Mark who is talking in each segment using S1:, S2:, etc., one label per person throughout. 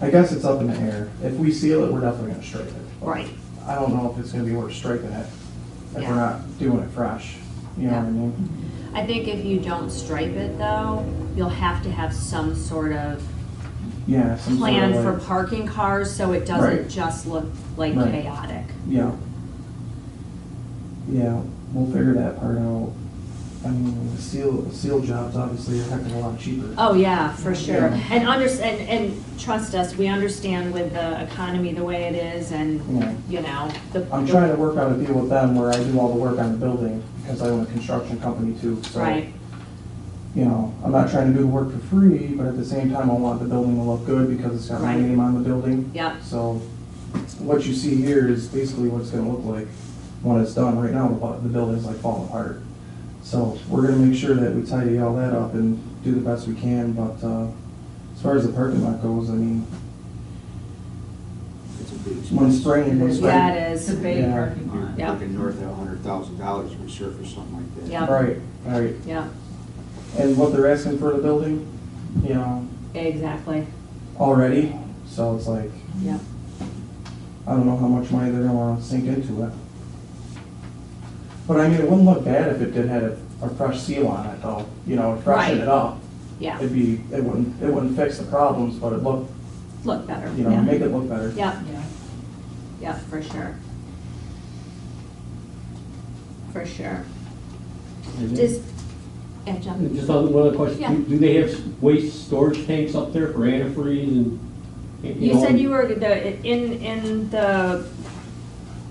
S1: I guess it's up in the air. If we seal it, we're definitely gonna straighten it.
S2: Right.
S1: I don't know if it's gonna be worth straightening it if
S2: Yeah.
S1: we're not doing it fresh. You know what I
S2: Yeah.
S1: mean?
S2: I think if you don't stripe it though, you'll have to have some sort of
S1: Yeah, some sort
S2: plan
S1: of
S2: for
S1: like-
S2: parking cars so it
S1: Right.
S2: doesn't just look like
S1: Right.
S2: chaotic.
S1: Yeah. Yeah, we'll figure that part out. I mean, the seal, seal jobs obviously are a heck of a lot cheaper.
S2: Oh, yeah, for sure.
S1: Yeah.
S2: And under, and, and trust us, we understand with the economy the way it is
S1: Yeah.
S2: and, you know, the.
S1: I'm trying to work out a deal with them where I do all the work on the building because I own a construction company too, so.
S2: Right,
S1: You know, I'm not trying to do the work for free, but at the same time, I want the building to look good because it's got my
S2: Right.
S1: name on the building.
S2: yep,
S1: So what you see here is basically what it's gonna look like when it's done. Right now, the bu- the building's like falling apart. So we're gonna make sure that we tidy all that up and do the best we can, but, uh, as far as the parking lot goes, I mean,
S3: It's a big.
S1: One spring, one spring.
S2: yeah, it
S4: It's a
S2: is.
S4: big
S1: Yeah.
S4: parking
S3: You're
S4: lot.
S2: Yeah.
S3: looking north of a hundred thousand dollars to resurface something like that.
S2: Yeah.
S1: right, right.
S2: Yep,
S1: And what they're asking for the building, you know,
S2: exactly,
S1: already, so it's like,
S2: yep.
S1: I don't know how much money they're gonna wanna sink into it. But I mean, it wouldn't look bad if it did have a, a fresh seal on it though, you know, freshen
S2: Right.
S1: it up.
S2: Yeah,
S1: It'd be, it wouldn't, it wouldn't fix the problems, but it look,
S2: look better.
S1: you know,
S2: Yeah.
S1: make it look better.
S2: Yep,
S4: Yeah.
S2: yep, for sure. For sure. Does, yeah, John?
S5: Mhm. Just on one other
S2: Yeah.
S5: question, do- do they have waste storage tanks up there for antifreeze and?
S2: You said
S5: know,
S2: you were the, in, in the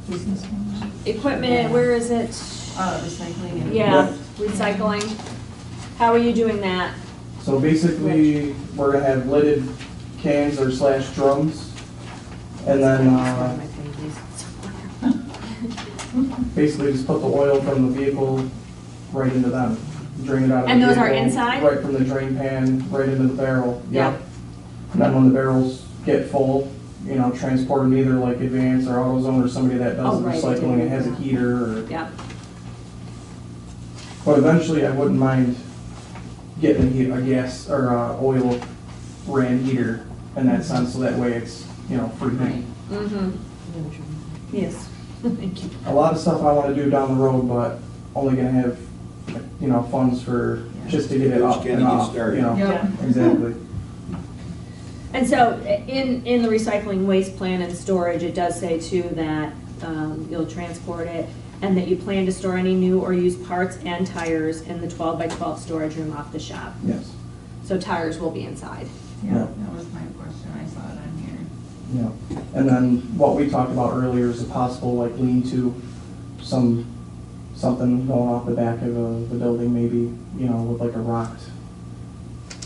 S4: Business one.
S2: equipment, where is it?
S4: Uh, recycling and.
S2: Yeah, recycling. How are you doing that?
S1: So basically, we're gonna have lidded cans or slash drums. And then, uh, basically just put the oil from the vehicle right into them, drain it out of the
S2: And those are
S1: vehicle,
S2: inside?
S1: Right from the drain pan, right into the barrel,
S2: Yeah.
S1: yep. And then when the barrels get full, you know, transport them either like Advance or AutoZone or somebody that
S2: Oh,
S1: does the
S2: right, they
S1: recycling
S2: do,
S1: and has a
S2: yeah.
S1: heater or.
S2: Yep,
S1: But eventually, I wouldn't mind getting a heat- a gas or a oil ran heater in that sense, so that way it's, you know, free heat.
S2: mm-hmm. Yes. Thank you.
S1: A lot of stuff I wanna do down the road, but only gonna have, you know, funds for, just to get it up
S3: Just
S1: and
S3: gotta get
S1: off, you
S3: started.
S1: know?
S4: Yep.
S1: Exactly.
S2: And so in, in the recycling waste plan and storage, it does say too that um, you'll transport it and that you plan to store any new or used parts and tires in the 12 by 12 storage room off the shop.
S1: Yes,
S2: So tires will be inside.
S4: Yeah,
S1: Yeah.
S4: that was my question, I saw it on here.
S1: yeah. And then what we talked about earlier is a possible like lean-to, some, something going off the back of uh, the, the building maybe, you know, with like a rocked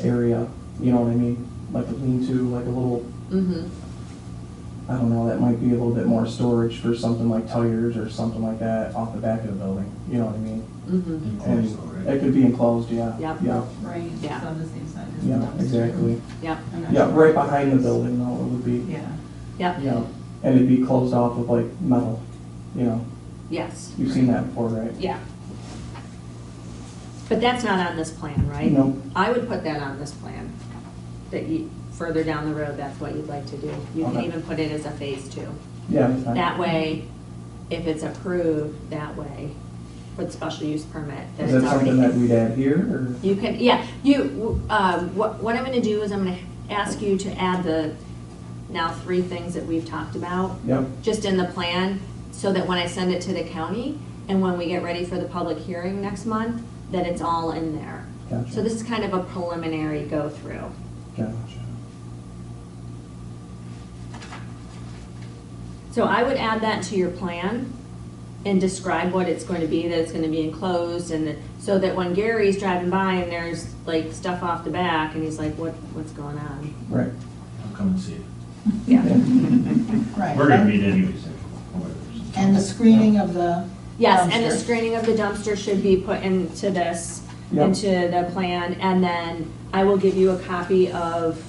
S1: area, you know what I mean? Like a lean-to, like a little,
S2: Mm-hmm.
S1: I don't know, that might be a little bit more storage for something like tires or something like that off the back of the building, you know what I mean?
S2: Mm-hmm.
S1: And It could be enclosed, yeah.
S2: Yep.
S1: Yeah,
S4: Right,
S2: Yeah.
S4: it's on the same side as the
S1: yeah,
S4: dumpster.
S1: exactly.
S2: Yep.
S4: I'm not
S1: Yeah,
S4: sure.
S1: right behind the building though, it would be,
S4: Yeah.
S2: Yep.
S1: you know, and it'd be closed off with like metal, you know?
S2: Yes.
S1: You've seen that before, right?
S2: Yeah. But that's not on this plan, right?
S1: No.
S2: I would put that on this plan, that you, further down the road, that's what you'd like to do. You can
S1: Okay.
S2: even put it as a phase two.
S1: Yeah, that's fine.
S2: That way, if it's approved that way, with special use permit, then
S1: Is
S2: it's
S1: that something that
S2: already.
S1: we'd add here, or?
S2: You can, yeah, you, um, what, what I'm gonna do is I'm gonna ask you to add the now three things that we've talked about
S1: Yep,
S2: just in the plan, so that when I send it to the county, and when we get ready for the public hearing next month, that it's all in there.
S1: gotcha.
S2: So this is kind of a preliminary go-through.
S1: Gotcha.
S2: So I would add that to your plan and describe what it's going to be, that it's gonna be enclosed, and that, so that when Gary's driving by and there's like stuff off the back, and he's like, what, what's going on?
S1: Right.
S6: I'll come and see it.
S2: Yeah.
S7: Right.
S6: We're gonna meet anyways.
S7: And the screening of the.
S2: Yes, and the
S7: dumpster.
S2: screening of the dumpster should be put into this,
S1: Yep.
S2: into the plan, and then I will give you a copy of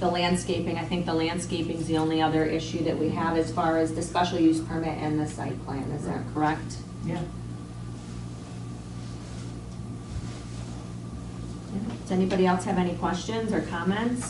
S2: the landscaping. I think the landscaping's the only other issue that we have as far as the special use permit and the site plan, is that correct?
S4: Yeah.
S2: Yeah. Does anybody else have any questions or comments?